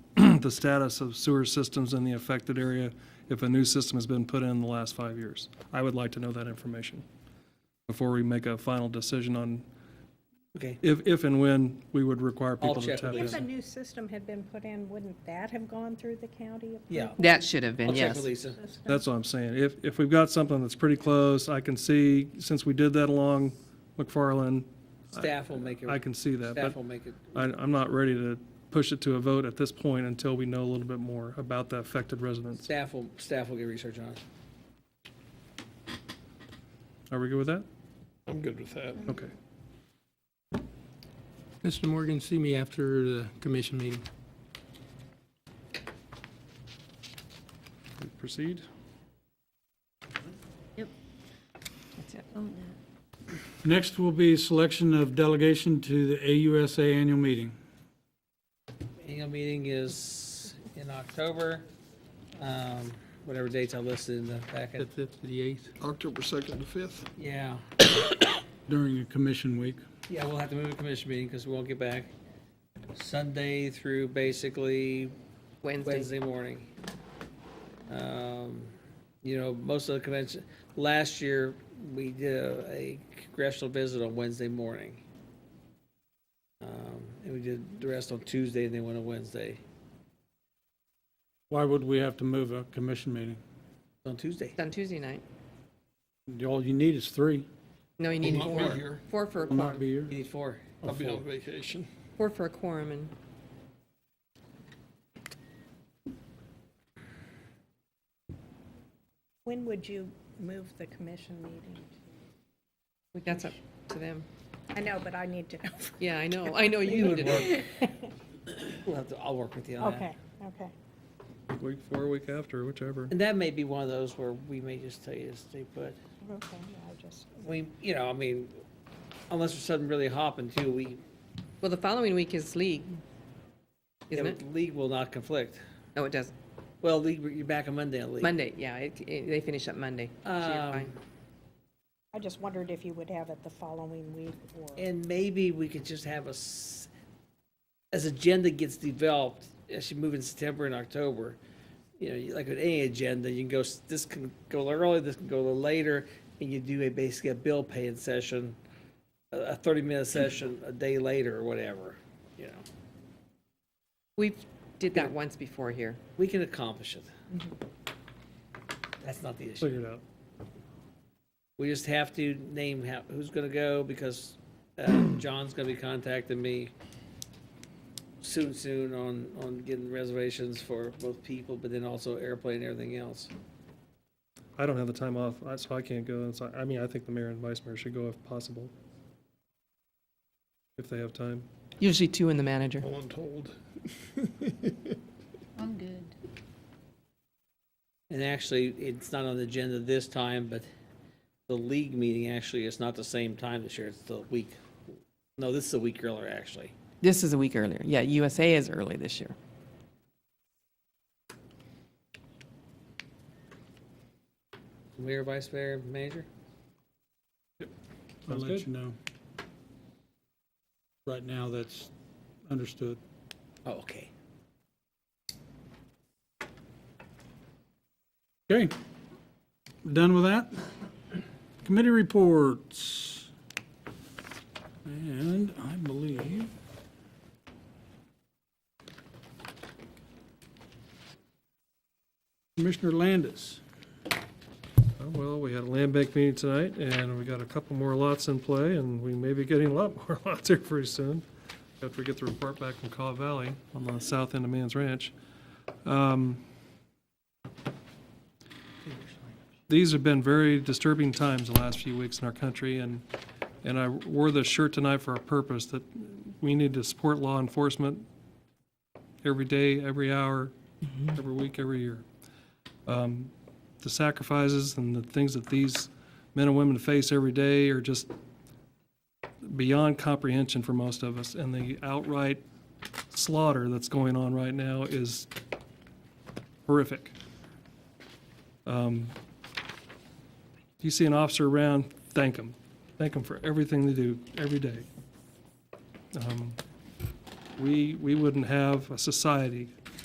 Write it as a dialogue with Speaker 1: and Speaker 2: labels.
Speaker 1: the status of sewer systems in the affected area if a new system has been put in the last five years. I would like to know that information before we make a final decision on
Speaker 2: Okay.
Speaker 1: if, if and when we would require
Speaker 2: I'll
Speaker 1: people to
Speaker 2: check
Speaker 1: tap
Speaker 2: with
Speaker 1: in.
Speaker 3: If a new system had been put in, wouldn't that have gone through the county?
Speaker 2: Yeah.
Speaker 4: That should have been,
Speaker 2: I'll check
Speaker 4: yes.
Speaker 2: with Lisa.
Speaker 1: That's what I'm saying. If, if we've got something that's pretty close, I can see, since we did that along McFarland,
Speaker 2: Staff will make it.
Speaker 1: I can see that.
Speaker 2: Staff
Speaker 1: But
Speaker 2: will make it.
Speaker 1: I, I'm not ready to push it to a vote at this point until we know a little bit more about the affected residents.
Speaker 2: Staff will, staff will get research on it.
Speaker 1: Are we good with that?
Speaker 5: I'm good with that.
Speaker 1: Okay.
Speaker 6: Mr. Morgan, see me after the commission meeting.
Speaker 1: We Proceed.
Speaker 5: Next will be selection of delegation to the AUSA annual meeting.
Speaker 2: Annual meeting is in October, um, whatever dates I listed in the
Speaker 6: The 5th
Speaker 2: packet.
Speaker 6: to the 8th.
Speaker 7: October 2nd to 5th.
Speaker 2: Yeah,
Speaker 5: During a commission week.
Speaker 2: yeah, we'll have to move the commission meeting because we won't get back Sunday through basically
Speaker 4: Wednesday.
Speaker 2: Wednesday morning. Um, You know, most of the convention, last year, we did a- a congressional visit on Wednesday morning. Um, And we did the rest on Tuesday and then went on Wednesday,
Speaker 5: Why would we have to move a commission meeting?
Speaker 2: on Tuesday.
Speaker 4: It's on Tuesday night.
Speaker 5: All you need is three.
Speaker 4: No, you need
Speaker 7: I'll not be
Speaker 4: four.
Speaker 7: here.
Speaker 4: Four for a
Speaker 5: Will not
Speaker 4: quorum.
Speaker 5: be here.
Speaker 2: You need Oh, four.
Speaker 7: I'll be on vacation.
Speaker 4: Four for a quorum and
Speaker 3: When would you move the commission meeting?
Speaker 4: that's up to them.
Speaker 3: I know, but I need to know.
Speaker 4: Yeah, I know. I know you need to do it.
Speaker 2: We'll have to, I'll work with you on that.
Speaker 3: Okay, okay.
Speaker 1: Week four, week after, whichever.
Speaker 2: And that may be one of those where we may just tell you to stay put.
Speaker 3: Okay, I just,
Speaker 2: We, you know, I mean, unless there's something really hopping too, we,
Speaker 4: Well, the following week is league, isn't it?
Speaker 2: league will not conflict.
Speaker 4: No, it doesn't.
Speaker 2: Well, league, you're back on Monday on league.
Speaker 4: Monday, yeah, it, it- they finish up Monday. So you're
Speaker 2: Um,
Speaker 4: fine.
Speaker 3: I just wondered if you would have it the following week or,
Speaker 2: And maybe we could just have us, as agenda gets developed, as you move in September and October, you know, you- like with any agenda, you can go, s- this can go a little early, this can go a little later, and you do a, basically a bill paying session, a, a thirty-minute session a day later or whatever, you know.
Speaker 4: We did that once before here.
Speaker 2: We can accomplish it. That's not the issue.
Speaker 1: Figure it out.
Speaker 2: We just have to name how, who's gonna go because uh, John's gonna be contacting me soon, soon on, on getting reservations for both people, but then also airplane and everything else.
Speaker 1: I don't have the time off, I- so I can't go. And so, I mean, I think the mayor and vice mayor should go if possible. If they have time.
Speaker 4: Usually two and the manager.
Speaker 7: All untold.
Speaker 8: I'm good.
Speaker 2: And actually, it's not on the agenda this time, but the league meeting actually is not the same time this year. It's the week, no, this is a week earlier, actually.
Speaker 4: This is a week earlier. Yeah, USA is early this year.
Speaker 2: Mayor, vice mayor, manager?
Speaker 5: I'll
Speaker 1: Sounds
Speaker 5: let
Speaker 1: good.
Speaker 5: you know. Right now, that's understood.
Speaker 2: Oh, okay.
Speaker 5: Okay. Done with that? Committee reports. And I believe Commissioner Landis.
Speaker 1: Oh, Well, we had a land bank meeting tonight, and we got a couple more lots in play, and we may be getting a lot more lots here pretty soon, after we get the report back from Caw Valley on the south end of Man's Ranch. Um, These have been very disturbing times the last few weeks in our country, and, and I wore this shirt tonight for a purpose, that we need to support law enforcement every day, every hour, every week, every year the sacrifices and the things that these men and women face every day are just beyond comprehension for most of us. And the outright slaughter that's going on right now is horrific. Um, If you see an officer around, thank them. Thank them for everything they do every day. Um, We, we wouldn't have a society